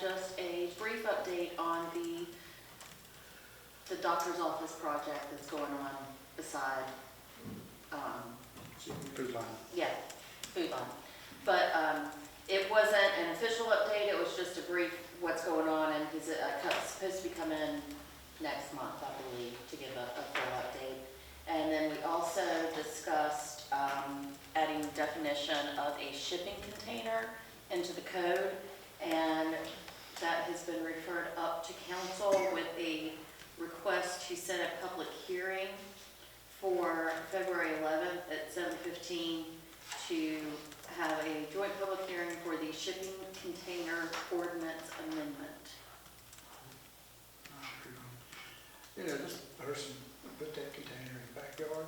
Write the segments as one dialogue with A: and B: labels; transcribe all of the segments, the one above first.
A: just a brief update on the, the doctor's office project that's going on beside, um,
B: Food line.
A: yeah, food line. But um, it wasn't an official update, it was just a brief what's going on, and he's uh, co- supposed to be coming next month, I believe, to give a a full update. And then we also discussed um, adding definition of a shipping container into the code, and that has been referred up to council with a request to set a public hearing for February 11th at 7:15 to have a joint public hearing for the shipping container ordinance amendment.
B: You know, this person put that container in the backyard,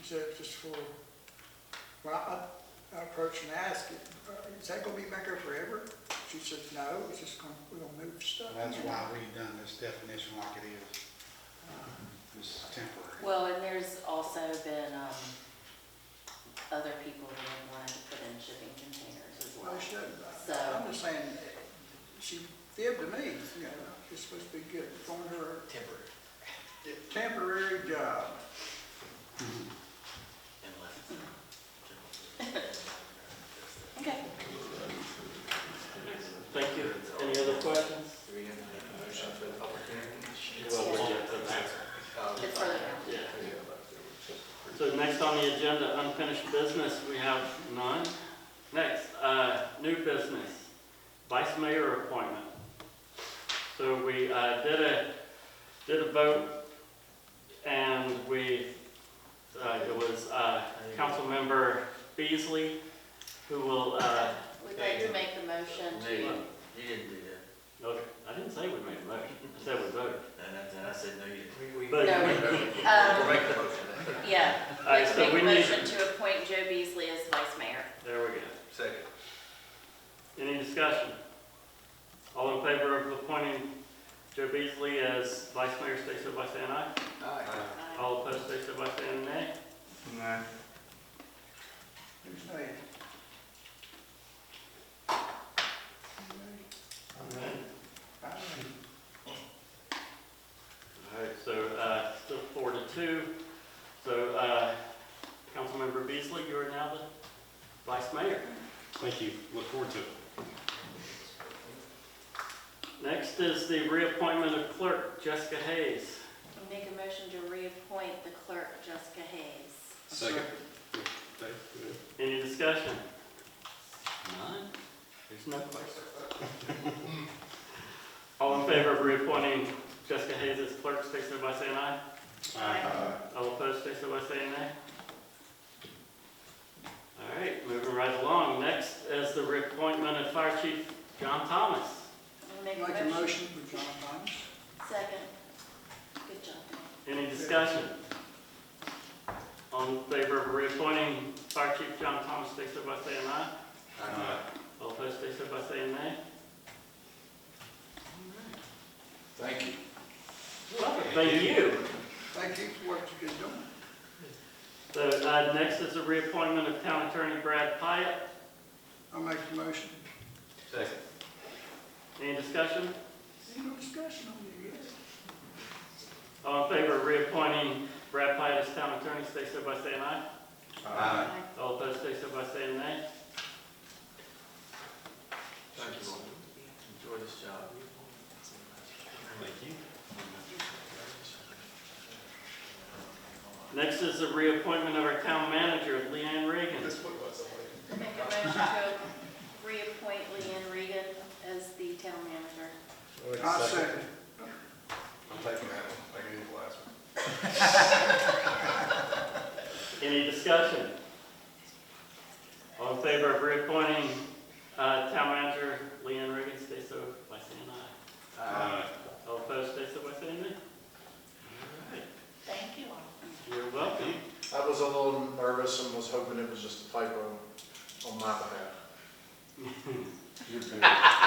B: she said it was just for, when I, I approached and asked, is that gonna be back there forever? She said, no, it's just gonna, we're gonna move stuff.
C: That's why we done this definition like it is. This is temporary.
A: Well, and there's also been um, other people who have wanted to put in shipping containers as well.
B: Well, she doesn't,
A: So-
B: I'm just saying, she fibbed to me, you know, it's supposed to be good, on her
D: Temporary,
B: temporary job.
D: unless.
A: Okay.
E: Thank you. Any other questions?
D: Do we have a motion for the public hearing?
E: Well, we'll get to that.
A: It's further down.
E: Yeah. So next on the agenda, unfinished business, we have none. Next, uh, new business, vice mayor appointment. So we, uh, did a, did a vote, and we, uh, it was, uh, Councilmember Beasley, who will, uh,
A: We'd like to make the motion
D: No, you
A: to,
D: you didn't do that.
E: okay, I didn't say we made a motion, I said we voted.
D: And I, and I said, no, you didn't. We, we.
E: But-
A: No, we- um,
D: Make the motion.
A: yeah, I'd
E: All right,
A: like to
E: so
A: make
E: we
A: a
E: need-
A: motion to appoint Joe Beasley as vice mayor.
E: There we go.
D: Second.
E: Any discussion? All in favor of appointing Joe Beasley as vice mayor, state so by saying aye.
B: Aye.
E: All opposed, state so by saying nay.
B: Who's name? I don't know.
E: All right, so, uh, still four to two. So, uh, Councilmember Beasley, you are now the vice mayor.
F: Thank you, look forward to it.
E: Next is the reappointment of clerk Jessica Hayes.
A: Make a motion to reappoint the clerk Jessica Hayes.
F: Second.
E: Any discussion? None? There's no question. All in favor of reappointing Jessica Hayes as clerk, state so by saying aye. All opposed, say so by saying nay. All right, moving right along. Next is the reappointment of Fire Chief John Thomas.
A: Make
B: Make
A: a
B: a
A: motion.
B: motion for John Thomas.
A: Second. Good job.
E: Any discussion? All in favor of reappointing Fire Chief John Thomas, say so by saying aye. All opposed, say so by saying nay.
D: Thank you.
E: Thank you.
B: Thank you for what you've been doing.
E: So, uh, next is the reappointment of Town Attorney Brad Pyatt.
B: I'll make the motion.
D: Second.
E: Any discussion?
B: Any discussion on it yet?
E: All in favor of reappointing Brad Pyatt as Town Attorney, say so by saying aye. All opposed, say so by saying nay.
D: Thank you. Enjoy this job. Thank you.
E: Next is the reappointment of our town manager, Leanne Reagan.
A: Make a motion to reappoint Leanne Regan as the town manager.
B: I second.
C: I'm taking that one, I gave it the last one.
E: Any discussion? All in favor of reappointing uh, town manager Leanne Reagan, stay so by saying aye. All opposed, stay so by saying nay.
A: Thank you all.
E: You're welcome.
G: I was a little nervous and was hoping it was just a typo on my behalf.
C: You're good.
G: oh,